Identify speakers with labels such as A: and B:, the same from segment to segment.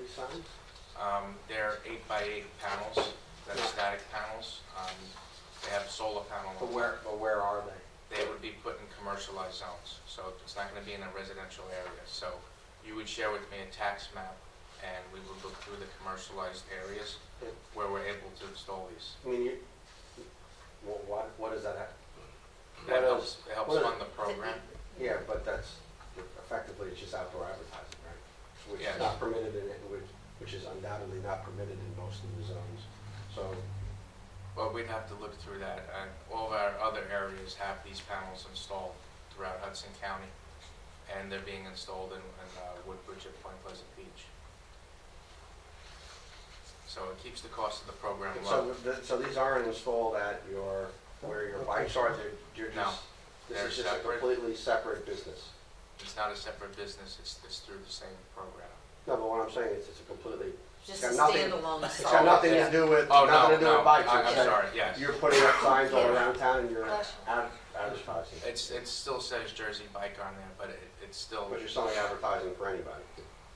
A: these signs?
B: Um, they're eight by eight panels, that
A: Yeah.
B: are static panels. Um, they have a solar panel. on
A: But where, but where are they?
B: top. They would be put in commercialized zones, so it's not gonna be in a residential area. So you would share with me a tax map, and we would look through the commercialized areas
A: Yeah.
B: where we're able to install these.
A: I mean, you, wha- what, what is that? at?
B: That
A: What
B: helps,
A: else?
B: it helps
A: what-
B: fund the program.
A: Yeah, but that's effectively, it's just outdoor advertising, right? Which
B: Yes.
A: is not permitted in, it, which, which is undoubtedly not permitted in most of the zones. So,
B: Well, we'd have to look through that, and all of our other areas have these panels installed throughout Hudson County, and they're being installed in, in uh, Woodbridge at Point Pleasant Beach. So it keeps the cost of the program low.
A: so, th- so these aren't installed at your, where your bikes are, they're, you're
B: No,
A: just,
B: they're
A: this is just a
B: separate.
A: completely separate business.
B: It's not a separate business, it's, it's through the same program.
A: No, but what I'm saying is it's a completely,
C: Just a
A: Got nothing-
C: standalone
A: it's got
C: salt.
A: nothing to
B: yeah.
A: do with,
B: Oh,
A: nothing
B: no,
A: to do
B: no,
A: with bikes.
B: I- I'm
A: it's-
B: sorry, yes.
A: You're putting up signs all around town and you're
C: Bless
A: ad- advertising.
B: It's, it still says Jersey Bike on there, but it, it's still,
A: But you're selling advertising for anybody,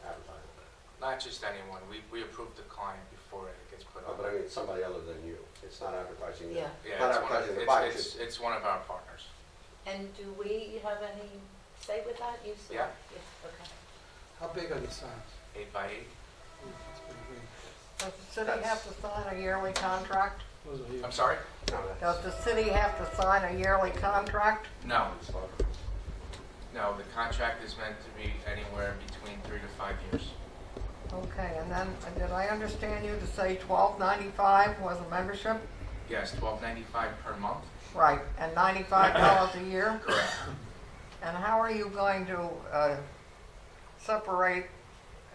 A: advertising.
B: not just anyone, we, we approve the client before it gets put
A: Uh,
B: on.
A: But I mean, it's somebody other than you. It's not advertising.
C: Yeah,
B: Yeah,
A: Not
B: it's one of-
A: advertising the
B: it's-
A: bikes,
B: It's, it's one of our partners.
C: and do we have any say with that? You said-
B: Yeah.
C: Okay.
D: How big are the signs?
B: Eight by eight,
D: That's pretty big.
E: Does the city have to sign a yearly contract?
D: Those are
B: I'm
D: huge.
B: sorry?
A: No,
E: Does the city have to sign a yearly contract?
B: No,
A: that's.
B: No, the contract is meant to be anywhere between three to five years.
E: Okay, and then, uh, did I understand you to say twelve ninety-five was a membership?
B: Yes, twelve ninety-five per month.
E: Right, and ninety-five dollars a year?
B: Correct.
E: And how are you going to, uh, separate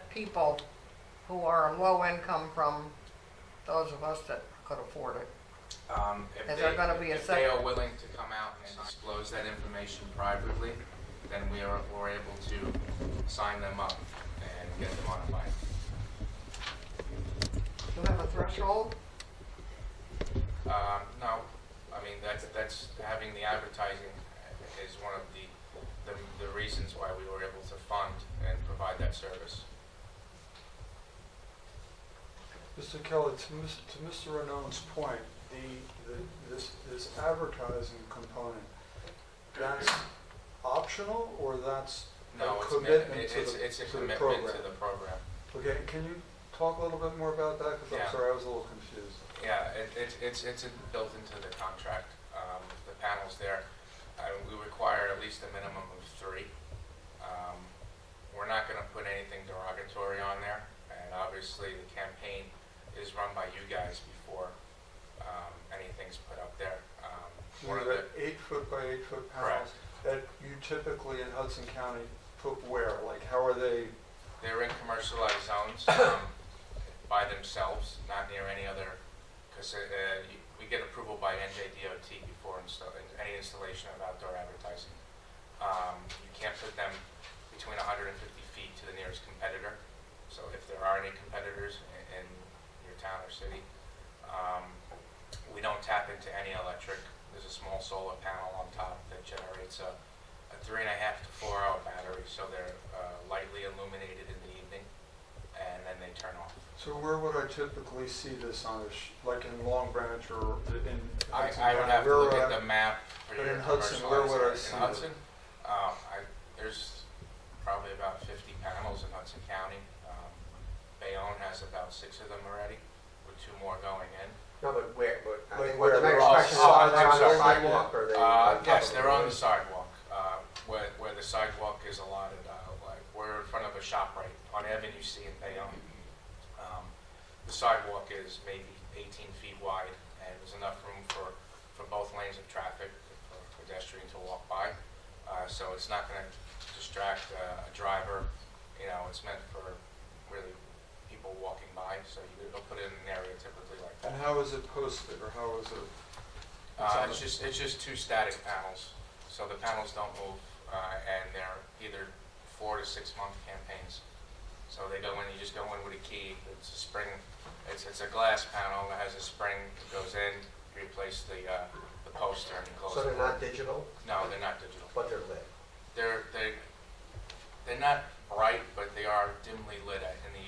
E: people who are low income from those of us that could afford it?
B: Um, if
E: Is
B: they-
E: there gonna be a
B: If they
E: sec-
B: are willing to come out and disclose that information privately, then we are, we're able to sign them up and get them on a bike.
E: Do you have a threshold?
B: Um, no, I mean, that's, that's, having the advertising is one of the, the, the reasons why we were able to fund and provide that service.
F: Mr. Kelly, to Mis- to Mr. Renone's point, the, the- this, this advertising component, that's optional or that's
B: No,
F: a
B: it's, meant-
F: commitment to
B: it's, it's
F: the,
B: a
F: to the
B: commitment to
F: program?
B: the program.
F: Okay, can you talk a little bit more about that? Because
B: Yeah.
F: I'm sorry, I was a little confused.
B: Yeah, it, it's, it's, it's built into the contract, um, the panels there. Uh, we require at least a minimum of three. Um, we're not gonna put anything derogatory on there, and obviously the campaign is run by you guys before, um, anything's put up there. Um, one of the,
F: You're at eight foot by eight foot
B: Correct.
F: panels that you typically in Hudson County put where? Like, how are they,
B: they're in commercialized zones, um, by themselves, not near any other, cause, uh, you- we get approval by NJDOT before install, any installation of outdoor advertising. Um, you can't put them between hundred and fifty feet to the nearest competitor, so if there are any competitors in, in your town or city, um, we don't tap into any electric, there's a small solar panel on top that generates a, a three and a half to four hour battery, so they're uh, lightly illuminated in the evening, and then they turn off.
F: so where would I typically see this on a, sh- like in Long Branch or in
B: I,
F: Hudson County?
B: I would have to
F: Where
B: look
F: would
B: at
F: I-
B: the map. for
F: But
B: your
F: in Hudson, where would I
B: commercialized-
F: see
B: In
F: it?
B: Hudson, um, I, there's probably about fifty panels in Hudson County. Um, Bayonne has about six of them already, with two more going in.
A: No, but where, but. I
F: Like
A: think what
F: where
A: the
F: they're
A: next
F: all
A: question is,
B: side-
A: are they
B: I'm
A: on the
B: sorry.
A: sidewalk or are they?
B: Uh,
A: on top
B: yes,
A: of
B: they're on
A: roof?
B: the sidewalk, uh, where, where the sidewalk is allotted, uh, like, we're in front of a shop right on Avenue C in Bayonne. Um, The sidewalk is maybe eighteen feet wide, and there's enough room for, for both lanes of traffic, for pedestrians to walk by. Uh, so it's not gonna distract uh, a driver, you know, it's meant for really people walking by, so you, it'll put it in an area typically like that.
F: And how is it posted, or how is it? It's
B: Uh,
F: on
B: it's
F: the-
B: just, it's just two static panels, so the panels don't move, uh, and they're either four to six month campaigns. So they go in, you just go in with a key, it's a spring, it's, it's a glass panel that has a spring that goes in, you replace the, uh, the poster and you close
A: So they're
B: it.
A: not digital,
B: No, they're not digital.
A: but they're lit.
B: They're, they, they're not bright, but they are dimly lit at- in